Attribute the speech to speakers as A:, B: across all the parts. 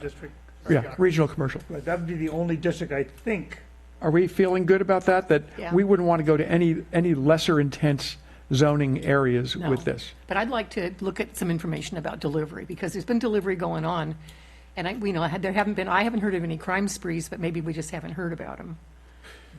A: district.
B: Yeah, regional commercial.
A: Right, That would be the only district, I think.
B: Are we feeling good about that? That
C: Yeah.
B: we wouldn't want to go to any, any lesser intense zoning areas
C: No.
B: with this?
C: But I'd like to look at some information about delivery, because there's been delivery going on, and I, we know, I had- there haven't been, I haven't heard of any crime sprees, but maybe we just haven't heard about them.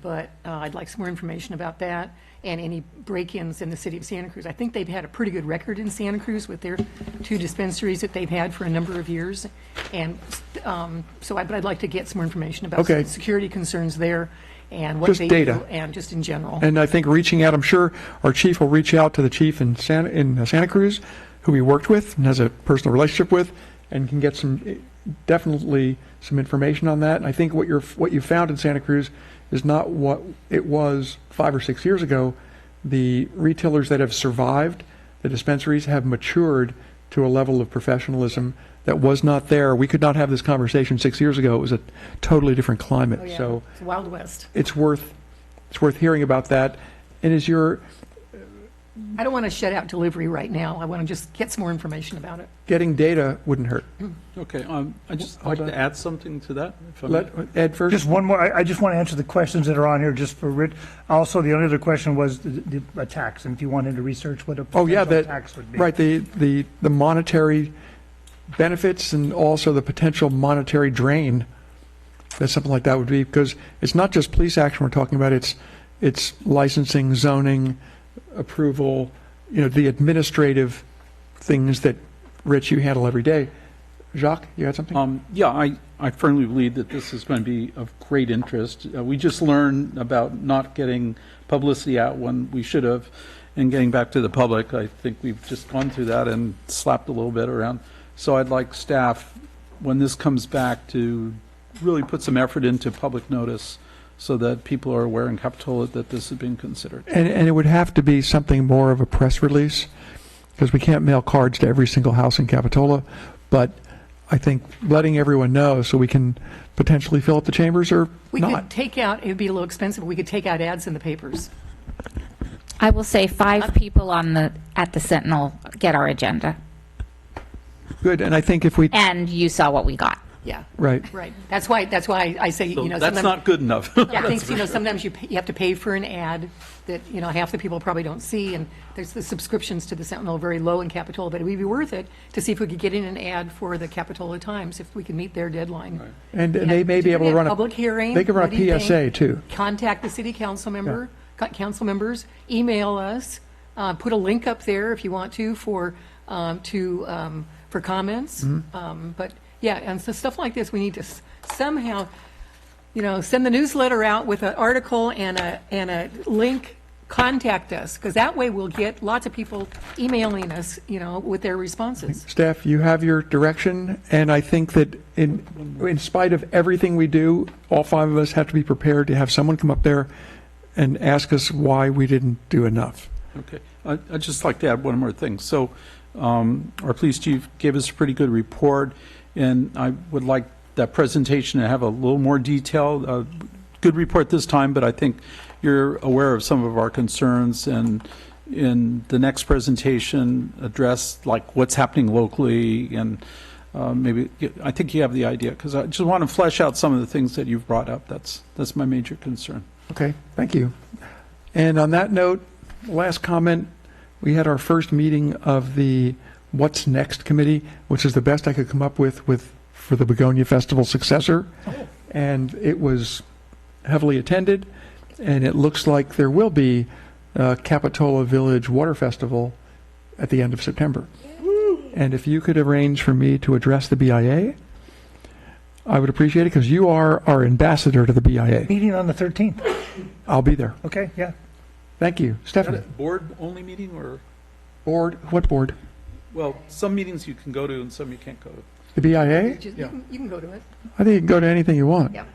C: But uh, I'd like some more information about that, and any break-ins in the city of Santa Cruz. I think they've had a pretty good record in Santa Cruz with their two dispensaries that they've had for a number of years, and, um, so I, but I'd like to get some more information about
B: Okay.
C: some security concerns there, and what
B: Just
C: they do.
B: data.
C: And just in general.
B: And I think reaching out, I'm sure our chief will reach out to the chief in Santa, in uh, Santa Cruz, who he worked with and has a personal relationship with, and can get some, eh, definitely some information on that. And I think what you're, what you found in Santa Cruz is not what it was five or six years ago. The retailers that have survived, the dispensaries have matured to a level of professionalism that was not there. We could not have this conversation six years ago. It was a totally different climate.
C: Oh, yeah.
B: So
C: It's Wild West.
B: it's worth it's worth hearing about that. And is your
C: I don't want to shut out delivery right now. I want to just get some more information about it.
B: getting data wouldn't hurt.
D: Okay, um, I just
B: Hold
D: like
B: on.
D: to add something to that, if I may.
B: Let Ed first.
A: Just one more, I, I just want to answer the questions that are on here, just for Rich. Also, the only other question was the, the uh, tax, and if you wanted to research what a
B: Oh, yeah,
A: potential
B: that-
A: tax would be.
B: right the the the monetary benefits and also the potential monetary drain that something like that would be because it's not just police action we're talking about. It's it's licensing, zoning, approval, you know, the administrative things that Rich you handle every day. Jacques, you had something?
D: Um, yeah, I, I firmly believe that this is going to be of great interest. Uh, we just learned about not getting publicity out when we should have and getting back to the public. I think we've just gone through that and slapped a little bit around. So I'd like staff, when this comes back, to really put some effort into public notice so that people are aware in Capitola that this has been considered.
B: And, and it would have to be something more of a press release, because we can't mail cards to every single house in Capitola. But I think letting everyone know so we can potentially fill up the chambers or
C: We could
B: not.
C: take out, it would be a little expensive, but we could take out ads in the papers.
E: I will say five people on the, at the Sentinel get our agenda,
B: Good, and I think if we,
E: and you saw what we got.
C: Yeah,
B: right,
C: right. That's why, that's why I say, you
D: So
C: know,
D: that's
C: sometimes,
D: not good enough.
C: I think, you know, sometimes you, pay- you have to pay for an ad that, you know, half the people probably don't see, and there's the subscriptions to the Sentinel very low in Capitola, but it would be worth it to see if we could get in an ad for the Capitola Times, if we could meet their deadline.
B: and, and they may be
C: Yeah,
B: able to run a.
C: public hearing,
B: They could run
C: what do you
B: a
C: think?
B: PSA too.
C: contact the city council member, co- council members, email us, uh, put a link up there if you want to for, um, to, um, for comments.
B: Mm-hmm.
C: Um, But, yeah, and so stuff like this, we need to s- somehow, you know, send the newsletter out with an article and a, and a link, contact us, because that way we'll get lots of people emailing us, you know, with their responses.
B: Staff, you have your direction, and I think that in, in spite of everything we do, all five of us have to be prepared to have someone come up there and ask us why we didn't do enough.
D: Okay, I- I'd just like to add one more thing. So um, our police chief gave us a pretty good report, and I would like that presentation to have a little more detail. Uh, Good report this time, but I think you're aware of some of our concerns, and in the next presentation, address like what's happening locally, and uh, maybe, I think you have the idea, because I just want to flesh out some of the things that you've brought up. That's, that's my major concern.
B: Okay, thank you. And on that note, last comment, we had our first meeting of the What's Next Committee, which is the best I could come up with with, for the Begonia Festival successor. And it was heavily attended, and it looks like there will be a Capitola Village Water Festival at the end of September. And if you could arrange for me to address the BIA, I would appreciate it, because you are our ambassador to the BIA.
A: Meeting on the 13th,
B: I'll be there.
A: okay, yeah.
B: Thank you.
D: Is that
B: Stephanie?
D: a board-only meeting, or?
B: Board, what board?
D: Well, some meetings you can go to and some you can't go to.
B: The BIA?
C: Just-
D: Yeah.
C: You can- you can go to it.
B: I think you can go to anything you want.
C: Yep.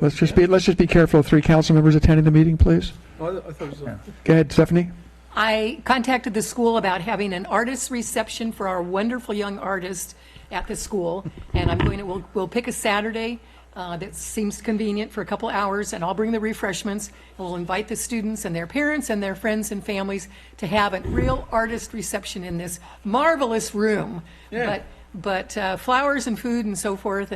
B: Let's just be, let's just be careful of three council members attending the meeting, please.
D: Oh, I I thought it was on.
B: Go ahead, Stephanie.
C: I contacted the school about having an artist reception for our wonderful young artists at the school, and I'm going to, we'll, we'll pick a Saturday uh, that seems convenient for a couple hours, and I'll bring the refreshments, and we'll invite the students and their parents and their friends and families to have a real artist reception in this marvelous room. But But uh, flowers and food and so forth,